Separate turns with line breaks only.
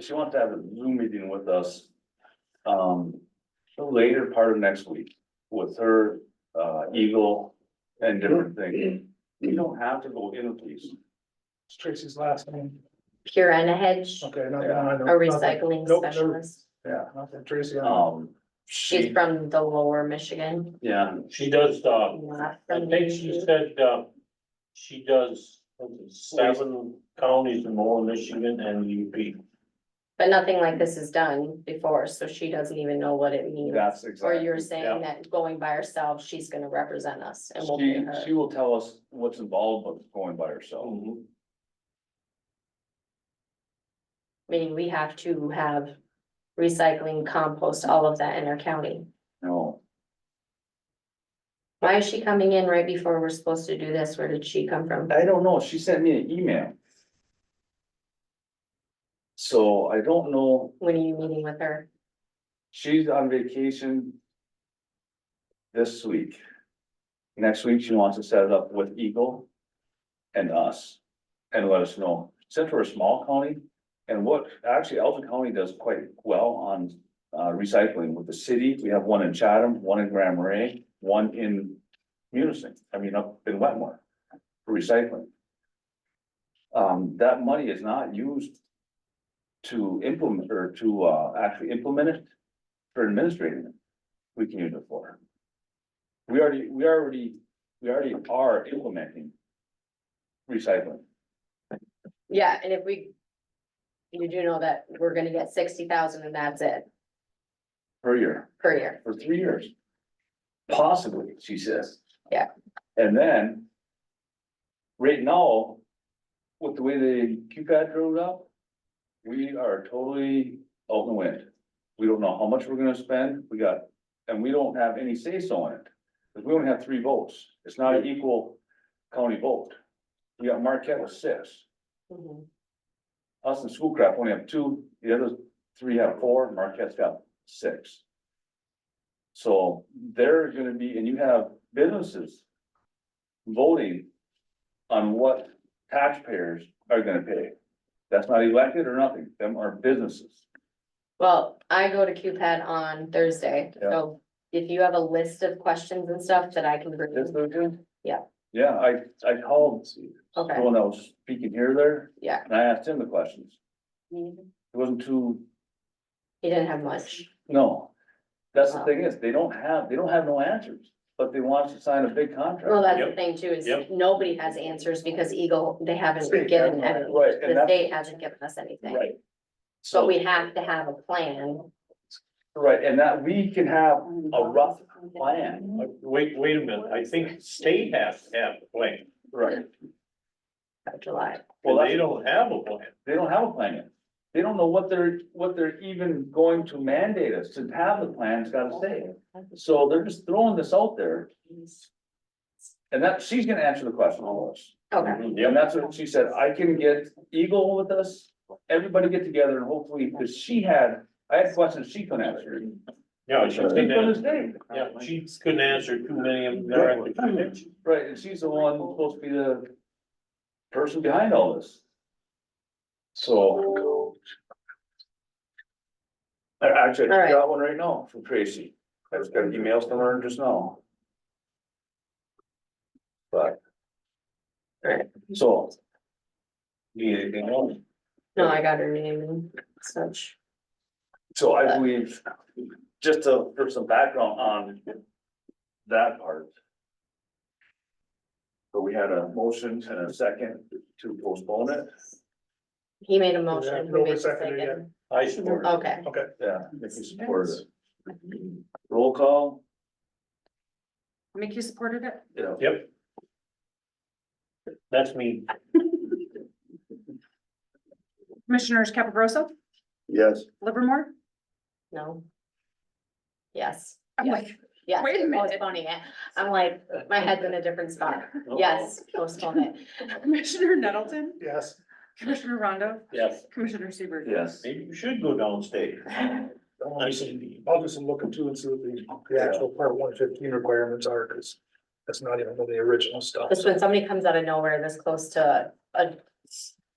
she wants to have a Zoom meeting with us. Um, the later part of next week with her, uh, Eagle and different things. You don't have to go in, please.
It's Tracy's last name.
Pure and a hedge,
Okay, not that I
a
know.
recycling
Nope, never-
specialist.
Yeah, not that Tracy. I know.
Um,
She's
she,
from the lower Michigan.
yeah,
She does, uh,
not
I
from
think
the-
she said, uh, she does seven counties in lower Michigan and UP.
But nothing like this is done before, so she doesn't even know what it means.
that's
Or
exactly.
you're
yeah.
saying that going by herself, she's gonna represent us and we'll pay
She, she
her.
will tell us what's involved with going by herself.
Mhm.
I mean, we have to have recycling, compost, all of that in our county.
No,
Why is she coming in right before we're supposed to do this? Where did she come from?
I don't know. She sent me an email. So I don't know.
When are you meeting with her?
She's on vacation. This week. Next week, she wants to set it up with Eagle. And us. And let us know, since we're a small county. And what, actually, Elgin County does quite well on uh recycling with the city. We have one in Chatham, one in Grand Marais, one in. Munising, I mean, up in Wetmore. For recycling. Um, that money is not used. To implement or to uh actually implement it for administrating it, we can use it for. We already, we already, we already are implementing. Recycling,
Yeah, and if we. You do know that we're gonna get sixty thousand and that's it
per year,
per year.
for three years. Possibly, she says.
Yeah.
And then. Right now. With the way the QCAD drove up. We are totally out in the wind. We don't know how much we're gonna spend, we got, and we don't have any say so in it. Cause we only have three votes, it's not an equal county vote. We got Marquette with six.
Mhm.
Us and Schoolcraft only have two, the other three have four, Marquette's got six. So they're gonna be, and you have businesses voting on what taxpayers are gonna pay. That's not elected or nothing, them are businesses.
Well, I go to QPAD on Thursday, so if you have a list of questions and stuff that I can bring.
Yes, they do?
Yeah.
Yeah, I, I called the
Okay,
one that was speaking here there,
yeah.
and I asked him the questions.
He
It wasn't too
didn't have much.
No, that's the
Wow.
thing is, they don't have, they don't have no answers, but they want us to sign a big contract.
Well, that's the
Yep.
thing too, is
Yep.
nobody has answers because Eagle, they haven't
State,
given
that's
any.
Right, and
The
that's,
state hasn't given us anything,
right.
but
So,
we have to have a plan.
right, and that we can have a rough plan,
Uh, Wait, wait a minute, I think state has to have a plan,
right?
by July.
Well,
well, they
that's-
don't have a plan.
They don't have a plan yet. They don't know what they're, what they're even going to mandate us to have the plan's gotta say. So they're just throwing this out there. And that, she's gonna answer the question all of us.
Okay,
Mm-hmm,
And that's what she said, I can get Eagle with us, everybody get together and hopefully, because she had, I had questions she couldn't answer.
Yeah,
She
she
couldn't
couldn't, answer-
understand.
yeah, she couldn't answer too many of them. They're at the convention.
Right, and she's the one supposed to be the person behind all this. So. I Actually, I got one right now from Tracy, I just got emails from her just now. But.
Right.
So. Need anything else?
no, I got her name and such.
So I believe, just to, for some background on that part. So we had a motion and a second to postpone it,
He made a motion. who
nobody
made the
seconded it
second?
I support. it.
Okay,
yeah, Nikki supported it. Roll call,
Mickey supported it?
yeah,
Yep. That's me.
Commissioners Capagroso,
Yes,
Livermore?
no. Yes.
I'm like,
Yes,
Wait a
it's
minute.
postponing it. I'm like, my head's in a different spot.
Oh.
Yes, postpone it.
Commissioner Nettleton,
Yes,
Commissioner Rondo,
Yes.
Commissioner Seaver.
yes,
Maybe you should go downstairs. I see.
I'll do some looking too and see what the, the actual part one fifteen requirements are, cause that's not even really the original stuff.
Just when somebody comes out of nowhere this close to a